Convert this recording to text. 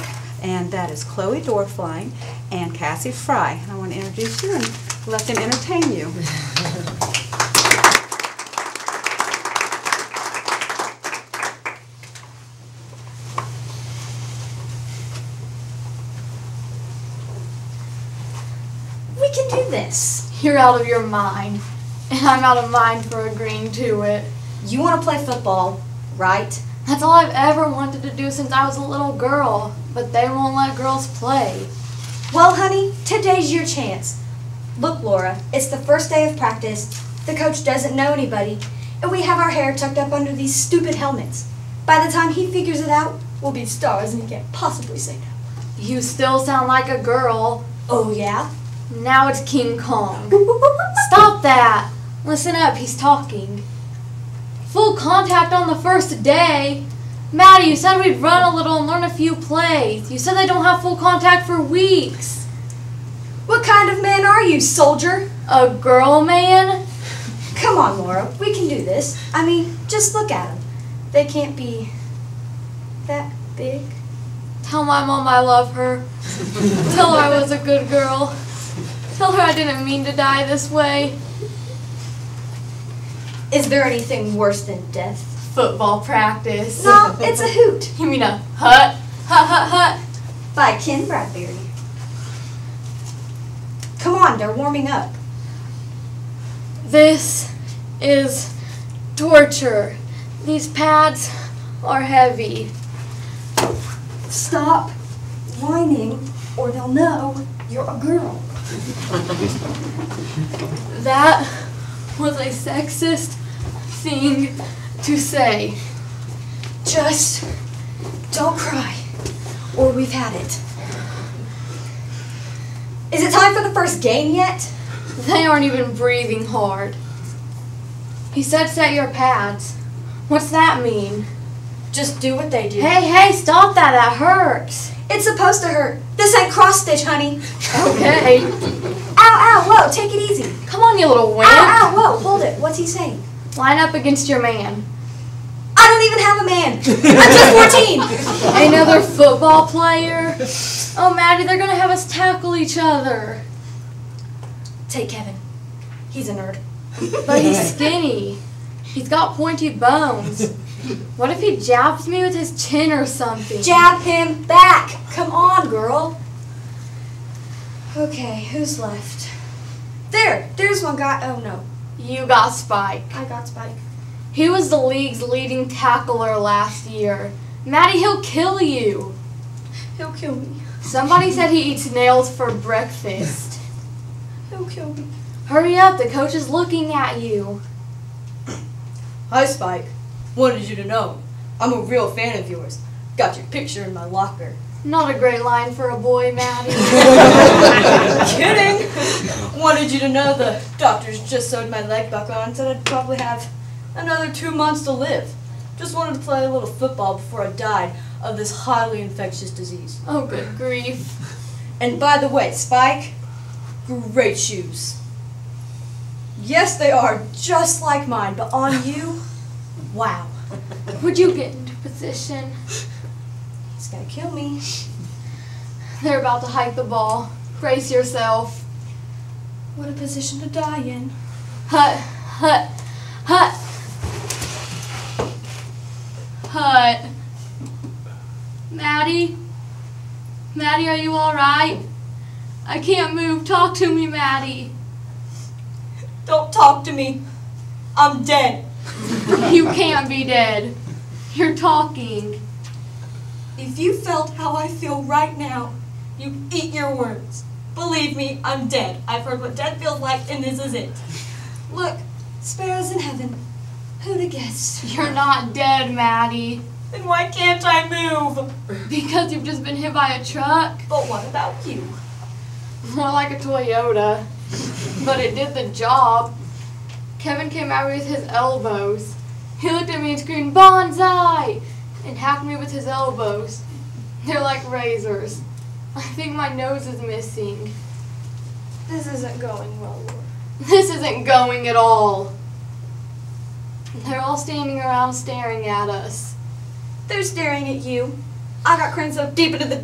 and that is Chloe Dorfline and Cassie Fry. And I want to introduce you and let them entertain you. We can do this. You're out of your mind. And I'm out of mind for agreeing to it. You want to play football, right? That's all I've ever wanted to do since I was a little girl. But they won't let girls play. Well, honey, today's your chance. Look, Laura, it's the first day of practice. The coach doesn't know anybody, and we have our hair tucked up under these stupid helmets. By the time he figures it out, we'll be stars and he can't possibly say no. You still sound like a girl. Oh, yeah? Now it's King Kong. Stop that! Listen up, he's talking. Full contact on the first day? Maddie, you said we'd run a little and learn a few plays. You said they don't have full contact for weeks. What kind of man are you, soldier? A girl man? Come on, Laura, we can do this. I mean, just look at them. They can't be that big. Tell my mom I love her. Tell her I was a good girl. Tell her I didn't mean to die this way. Is there anything worse than death? Football practice. No, it's a hoot You mean a hut? Hut, hut, hut. by Ken Bradbury. Come on, they're warming up. This is torture. These pads are heavy. Stop whining or they'll know you're a girl. That was a sexist thing to say. Just don't cry or we've had it. Is it time for the first game yet? They aren't even breathing hard. He said set your pads. What's that mean? Just do what they do. Hey, hey, stop that. That hurts. It's supposed to hurt. This ain't cross stitch, honey. Okay. Ow, ow, whoa, take it easy. Come on, you little Ow, wimp. ow, whoa, hold it. What's he saying? Line up against your man. I don't even have a man. I'm just 14. Another football player? Oh, Maddie, they're gonna have us tackle each other. Take Kevin. He's a nerd. But he's skinny. He's got pointy bones. What if he jabs me with his chin or something? Jab him back. Come on, girl. Okay, who's left? There, there's one guy. Oh no, You got Spike. I got Spike. He was the league's leading tackler last year. Maddie, he'll kill you. He'll kill me. Somebody said he eats nails for breakfast. He'll kill me. Hurry up, the coach is looking at you. Hi, Spike. Wanted you to know I'm a real fan of yours. Got your picture in my locker. Not a great line for a boy, Maddie. Kidding! Wanted you to know the doctors just sewed my leg back on and said I'd probably have another two months to live. Just wanted to play a little football before I died of this highly infectious disease. Oh, good grief. And by the way, Spike, great shoes. Yes, they are just like mine, but on you, wow. Would you get into position? He's gonna kill me. They're about to hike the ball. Brace yourself. What a position to die in. Hut, hut, hut. Hut. Maddie? Maddie, are you alright? I can't move. Talk to me, Maddie. Don't talk to me. I'm dead. You can't be dead. You're talking. If you felt how I feel right now, you eat your words. Believe me, I'm dead. I've heard what dead feels like, and this is it. Look, sparrows in heaven. Who'd have guessed? You're not dead, Maddie. Then why can't I move? Because you've just been hit by a truck. But what about you? More like a Toyota. But it did the job. Kevin came at me with his elbows. He looked at me and screamed, Bonsai! And hacked me with his elbows. They're like razors. I think my nose is missing. This isn't going well, Laura. This isn't going at all. They're all standing around staring at us. They're staring at you. I got cranes up deep into the